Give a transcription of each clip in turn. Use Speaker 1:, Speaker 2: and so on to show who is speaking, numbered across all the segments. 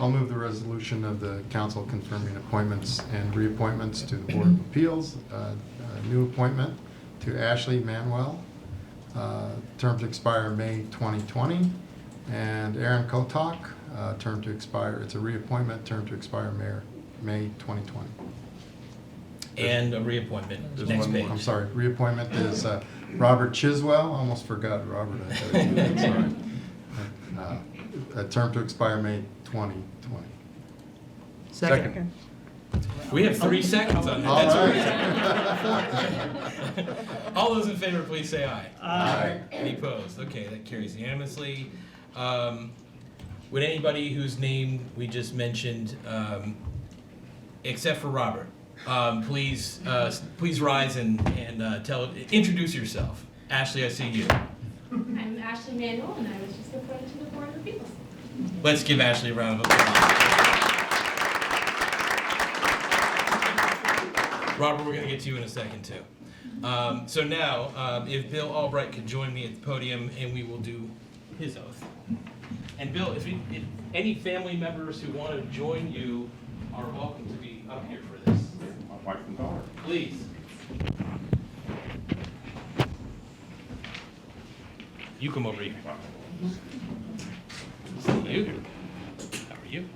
Speaker 1: I'll move the resolution of the council confirming appointments and reappointments to the Board of Appeals. Uh, a New appointment to Ashley Manuel, uh, term to expire May 2020. And Aaron Kotok, uh, term to expire, it's a reappointment, term to expire Mayor, May 2020.
Speaker 2: And a reappointment,
Speaker 3: There's
Speaker 2: next
Speaker 3: one
Speaker 2: page.
Speaker 3: more.
Speaker 1: I'm sorry, reappointment is uh, Robert Chiswell, I almost forgot Robert. I thought you did, sorry. Uh, A term to expire May 2020.
Speaker 3: Second.
Speaker 2: We have three seconds on
Speaker 1: All
Speaker 2: that, that's
Speaker 1: right.
Speaker 2: great. All those in favor, please say aye.
Speaker 1: Aye.
Speaker 2: Any opposed? Okay, that carries unanimously. Um, Would anybody whose name we just mentioned, um, except for Robert, um, please, uh, s- please rise and, and uh, tell, introduce yourself. Ashley, I see you.
Speaker 4: I'm Ashley Manuel, and I was just appointed to the Board of Appeals.
Speaker 2: Let's give Ashley a round of applause. Robert, we're going to get to you in a second, too. Um, so now, um, if Bill Albright could join me at the podium, and we will do his oath. And Bill, if, you- if any family members who want to join you are welcome to be up here for this.
Speaker 5: my wife and daughter.
Speaker 2: Please. You come over here. See you. How are you?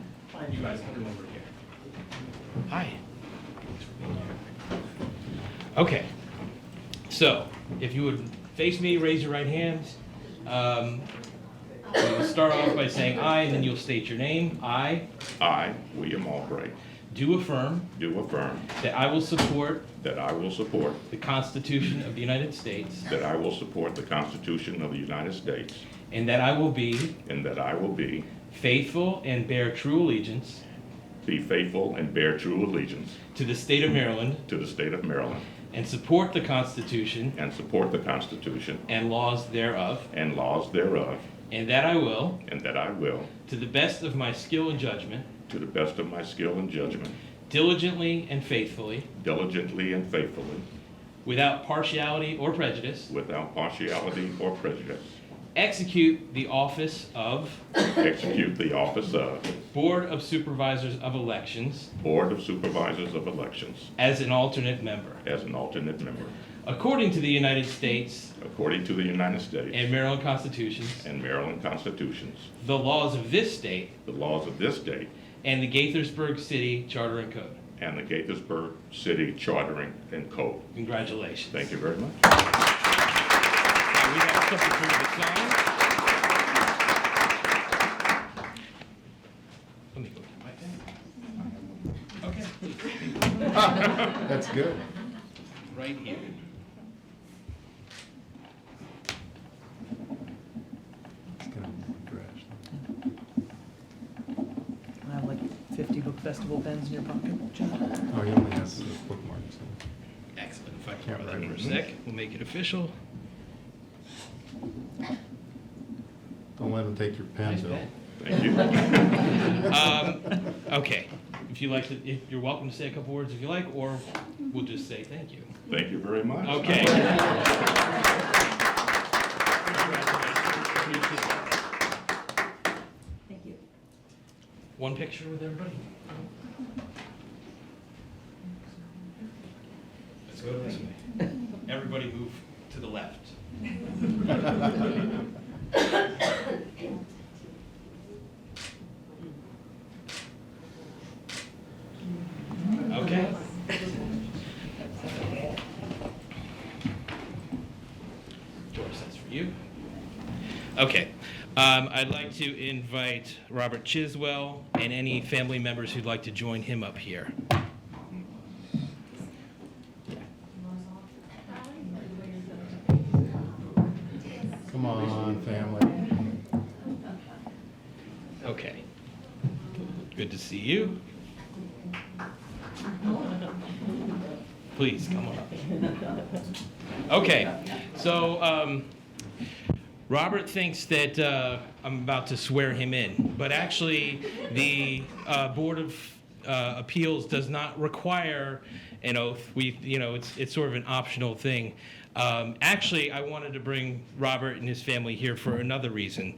Speaker 2: You guys come over here. Hi. Thanks for being here. Okay. So, if you would face me, raise your right hand. Um, we will start off by saying "I," and then you'll state your name. I
Speaker 5: I, William Albright,
Speaker 2: do affirm
Speaker 5: do affirm
Speaker 2: that I will support
Speaker 5: that I will support,
Speaker 2: The Constitution of the United States.
Speaker 5: that I will support the Constitution of the United States,
Speaker 2: And that I will be
Speaker 5: and that I will be,
Speaker 2: faithful and bear true allegiance
Speaker 5: be faithful and bear true allegiance
Speaker 2: to the state of Maryland
Speaker 5: to the state of Maryland,
Speaker 2: and support the Constitution
Speaker 5: and support the Constitution
Speaker 2: and laws thereof.
Speaker 5: and laws thereof,
Speaker 2: And that I will,
Speaker 5: and that I will,
Speaker 2: to the best of my skill and judgment,
Speaker 5: to the best of my skill and judgment,
Speaker 2: diligently and faithfully,
Speaker 5: diligently and faithfully,
Speaker 2: without partiality or prejudice,
Speaker 5: without partiality or prejudice,
Speaker 2: execute the office of
Speaker 5: execute the office of
Speaker 2: Board of Supervisors of Elections
Speaker 5: Board of Supervisors of Elections
Speaker 2: as an alternate member,
Speaker 5: as an alternate member,
Speaker 2: according to the United States
Speaker 5: according to the United States
Speaker 2: and Maryland Constitutions,
Speaker 5: and Maryland constitutions,
Speaker 2: the laws of this state,
Speaker 5: the laws of this state,
Speaker 2: and the Gaithersburg City Charter and Code.
Speaker 5: and the Gaithersburg City Chartering and Code.
Speaker 2: Congratulations.
Speaker 5: Thank you very much.
Speaker 2: Now, we have something for you to sign. Let me go get my pen. Okay,
Speaker 1: That's good.
Speaker 2: right here.
Speaker 1: It's gonna be trash.
Speaker 3: I have like 50 book festival pens in your pocket, John.
Speaker 1: Oh, he only has the bookmarks.
Speaker 2: Excellent. If I can
Speaker 1: Can't
Speaker 2: borrow that for a
Speaker 5: Mm-hmm.
Speaker 1: read.
Speaker 2: sec, we'll make it official.
Speaker 1: Don't let him take your pen,
Speaker 2: Nice
Speaker 1: Bill.
Speaker 2: pen.
Speaker 5: Thank you.
Speaker 2: Um, okay, if you like to, if you're welcome to say a couple words if you like, or we'll just say thank you.
Speaker 5: Thank you very much.
Speaker 2: Okay.
Speaker 3: Thank you.
Speaker 2: One picture with everybody? Let's go this way. Everybody move to the left. Okay. Doris, that's for you. Okay. Um, I'd like to invite Robert Chiswell and any family members who'd like to join him up here.
Speaker 1: Come on, family.
Speaker 2: Okay. Good to see you. Please, come on up. Okay, so um, Robert thinks that uh, I'm about to swear him in, but actually, the uh, Board of uh, Appeals does not require an oath. We, you know, it's, it's sort of an optional thing. Um, Actually, I wanted to bring Robert and his family here for another reason.